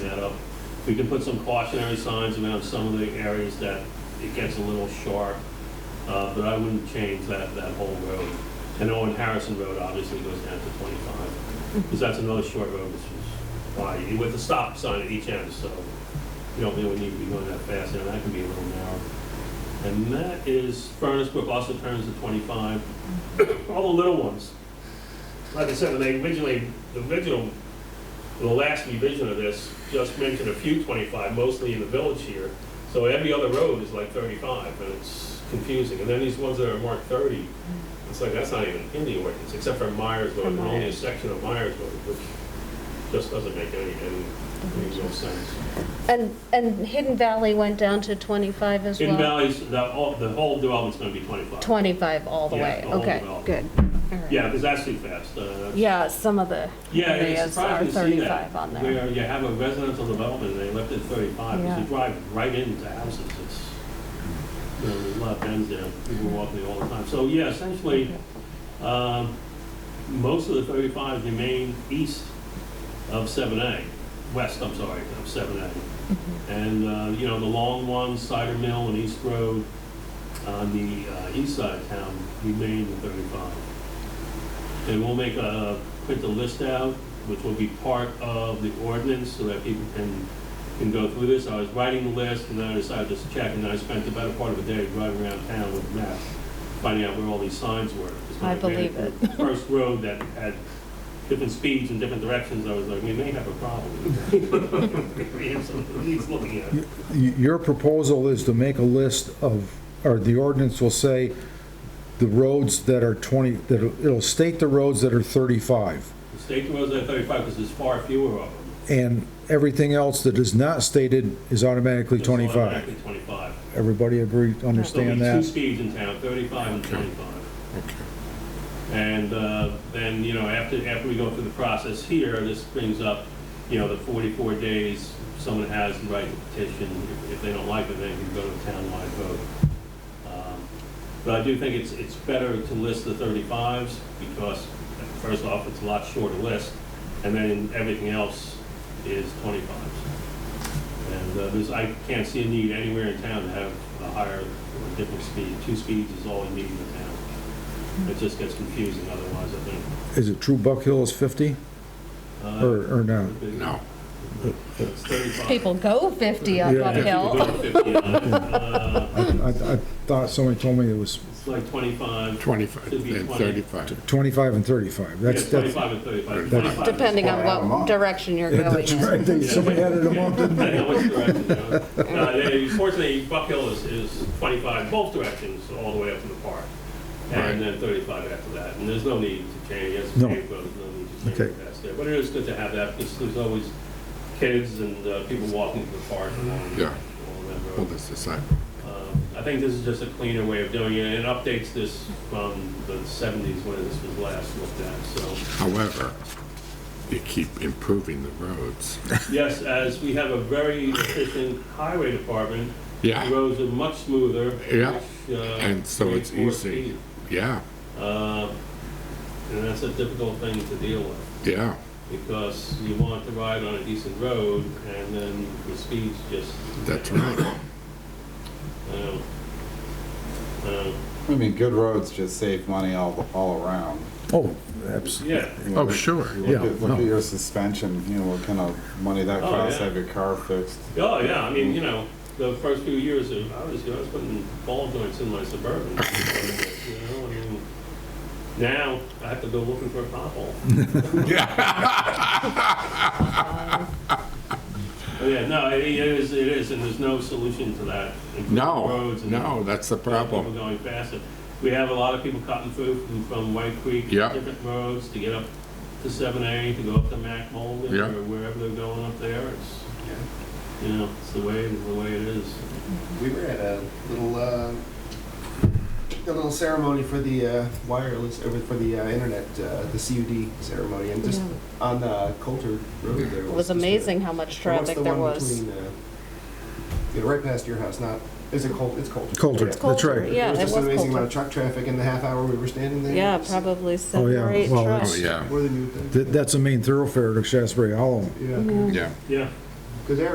We can put some cautionary signs around some of the areas that it gets a little sharp, uh, but I wouldn't change that, that whole road. And Owen Harrison Road obviously goes down to 25, because that's another short road, which is wide, with a stop sign at each end, so you don't really need to be going that fast, and that can be a little narrow. And that is Furnace Brook also turns to 25. All the little ones. Like I said, when they originally, the original, the last revision of this just mentioned a few 25, mostly in the village here. So every other road is like 35, and it's confusing. And then these ones that are marked 30, it's like, that's not even in the ordinance, except for Myers Road, only For a Myers. section of Myers Road, which just doesn't make any, any, any real sense. And, and Hidden Valley went down to 25 as well? In Valley's, the, all- the whole development's gonna be 25. 25 all the Yeah, way, the whole okay, development. good. All right. Yeah, because that's too fast. uh, Yeah, some of the Yeah, it's areas are surprising to see that, 35 on there. where you have a residential development, and they left it 35, because you Yeah. drive right into houses, it's, you know, there's a lot of bends there, people walk there all the time. So, yeah, essentially, um, most of the 35 remain east of 7A, west, I'm sorry, of 7A. And, uh, you know, the long ones, Cider Mill and East Road, on the uh, east side of town remain the 35. And we'll make a, print the list out, which will be part of the ordinance so that people can, can go through this. I was writing the list and then I decided to check and I spent the better part of a day driving around town with maps, finding out where all these signs were. 'Cause when I ran believe into it. the First road that had different speeds and different directions, I was like, we may have a problem. We have something that needs looking at. Y- Your proposal is to make a list of, or the ordinance will say, the roads that are 20, that, are- it'll state the roads that are 35, The State roads at 35 because there's far fewer of them. and everything else that is not stated is automatically It's 25. automatically 25. Everybody agree, There'll be understand two that? speeds in town, 35 and 25. And uh, then, you know, after, after we go through the process here, this brings up, you know, the 44 days someone has the right to petition. If- If they don't like it, they can go to townwide vote. Um, But I do think it's, it's better to list the 35s because, first off, it's a lot shorter list, and then everything else is 25s. And uh, there's, I can't see a need anywhere in town to have a higher or different speed. Two speeds is all you need in the town. It just gets confusing otherwise, I think. Is it true Buck Hill is 50, Uh, or, or not? No. It's 35. People go 50 up Yeah. Yeah, people uphill. go to 50 on it. Uh, I, I thought somebody told me it was It's like 25, 25 Should be and 20. 35. 25 and 35, yeah, that's, that's. 25 and 35. That's- 25 is- Depending on Add 'em what up. direction you're going That's in. right, they- Yeah. somebody added them up, didn't I know which direction, you know. Uh, they- Fortunately, Buck Hill is, is 25 both directions, all the way up to the park, Right. and then 35 after that, and there's no need to change, yes, No. paved road, no need to change Okay. the past there, but it is good to have that, because there's always kids and uh, people walking to the park along, Yeah. along that Well, road. that's the side. Um, I think this is just a cleaner way of doing it, and it updates this from the 70s when this was last looked at, so. However, you keep improving the roads. Yes, as we have a very efficient highway department. Yeah. the Roads are much smoother. Yeah, which, uh, and so it's reinforce easy. speed. Yeah, Uh, And that's a difficult thing to deal with, yeah. because you want to ride on a decent road, and then the speeds just. That's right. Uh, uh, I mean, good roads just save money all, all around. Oh, absolutely. Yeah, You Oh, look- sure. you Yeah, Look at, look no. at your suspension, you know, what kind of money that Oh, costs, yeah. have your car fixed. oh, yeah, I mean, you know, the first few years of, I was, you know, I was putting ball joints in my Suburban. You know, I mean, now I have to go looking for a pothole. Oh, Yeah, no, it it is, it is, and there's no solution to that. Improving No, roads and no, that's the People problem. going faster. We have a lot of people cutting through from, from White Creek. Yeah. Different roads to get up to seven A, to go up to Mac Mulligan Yeah. or wherever they're going up there. It's, you know, it's the way, the way it is. We were at a little uh, a little ceremony for the uh, wireless over for the uh, internet, uh, the CUD ceremony, and just on uh, Coulter Road there It was just a- amazing how much or what's traffic the there one was. Between, uh, you know, right past your house, not is it Coulter? It's Coulter. Coulter, Yeah. that's right. Yeah, There was it just was an amazing amount Coulter. of truck traffic in the half hour we were standing there. Yeah, It's- probably Oh, yeah, seven or eight well, Oh, trucks. yeah, What are the new things? That, that's a main thoroughfare to Shasberry Hollow. Yeah, yeah. Yeah. because